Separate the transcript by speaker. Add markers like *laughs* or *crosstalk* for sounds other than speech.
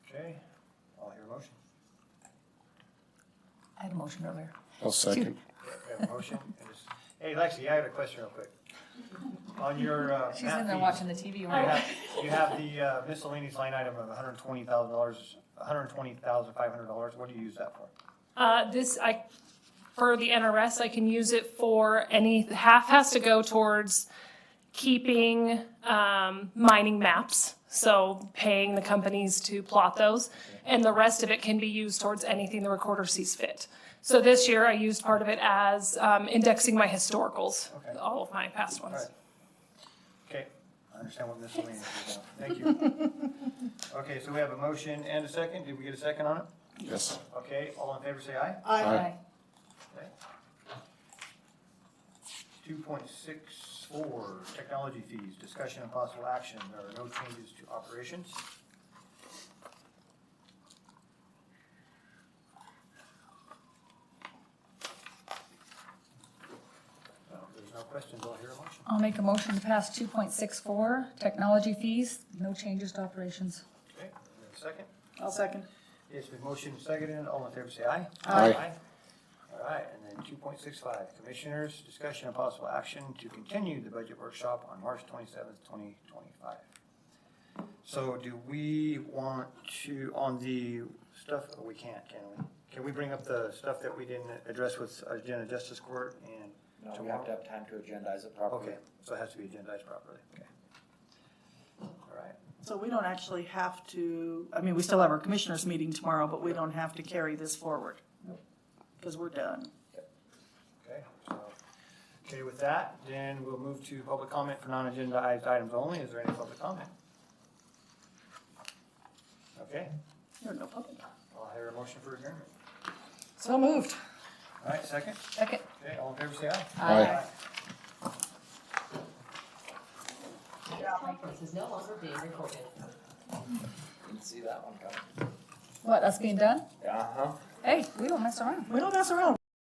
Speaker 1: a motion earlier.
Speaker 2: I'll second.
Speaker 3: We have a motion. and it's- Hey, Lexi, I had a question real quick. On your, uh,
Speaker 1: She's in
Speaker 3: map
Speaker 1: there watching
Speaker 3: fees,
Speaker 1: the TV
Speaker 3: you
Speaker 1: right
Speaker 3: have, you have the uh, miscellaneous line item of hundred and twenty thousand dollars, hundred and twenty thousand five hundred dollars. What do you use that for?
Speaker 4: Uh, this, I, for the NRS, I can use it for any, half has to go towards keeping, um, mining maps. So paying the companies to plot those, and the rest of it can be used towards anything the recorder sees fit. So this year I used part of it as, um, indexing my historicals,
Speaker 3: Okay.
Speaker 4: all of my past
Speaker 3: All right.
Speaker 4: ones.
Speaker 3: Okay, I understand what miscellaneous is now. Thank you.
Speaker 1: *laughs*
Speaker 3: Okay, so we have a motion and a second. Did we get a second on it?
Speaker 2: Yes.
Speaker 3: Okay, all in favor, say aye.
Speaker 1: Aye.
Speaker 3: Two point six four, technology fees, discussion and possible action. There are no changes to operations. So, if There's no questions, I'll hear a motion.
Speaker 1: I'll make a motion to pass two point six four, technology fees, no changes to operations.
Speaker 3: Okay, we have a second.
Speaker 5: I'll second.
Speaker 3: Yes, with motion seconded, all in favor say aye.
Speaker 2: Aye.
Speaker 3: All right, and then two point six five, commissioners, discussion and possible action to continue the budget workshop on March twenty-seventh, twenty twenty-five. So do we want to, on the stuff, oh, we can't, can we? Can we bring up the stuff that we didn't address with Agenda Justice Court and
Speaker 6: No, we
Speaker 3: tomorrow?
Speaker 6: have to have time to agendize it properly.
Speaker 3: Okay, so it has to be agendized properly, okay. All right,
Speaker 5: So we don't actually have to, I mean, we still have our commissioners meeting tomorrow, but we don't have to carry this forward. Because we're done.
Speaker 3: Okay, so, okay, with that, then we'll move to public comment for non-agenda items only. Is there any public comment? Okay,
Speaker 5: There are no public.
Speaker 3: I'll hear a motion for adjournment.
Speaker 5: So moved.
Speaker 3: All right, second.
Speaker 1: Second.
Speaker 3: Okay, all in favor, say aye.
Speaker 2: Aye.
Speaker 7: This is no longer being recorded.
Speaker 6: Didn't see that one coming.
Speaker 1: What, us being done?
Speaker 6: Uh-huh.
Speaker 1: Hey, we don't mess around.
Speaker 5: We don't mess around.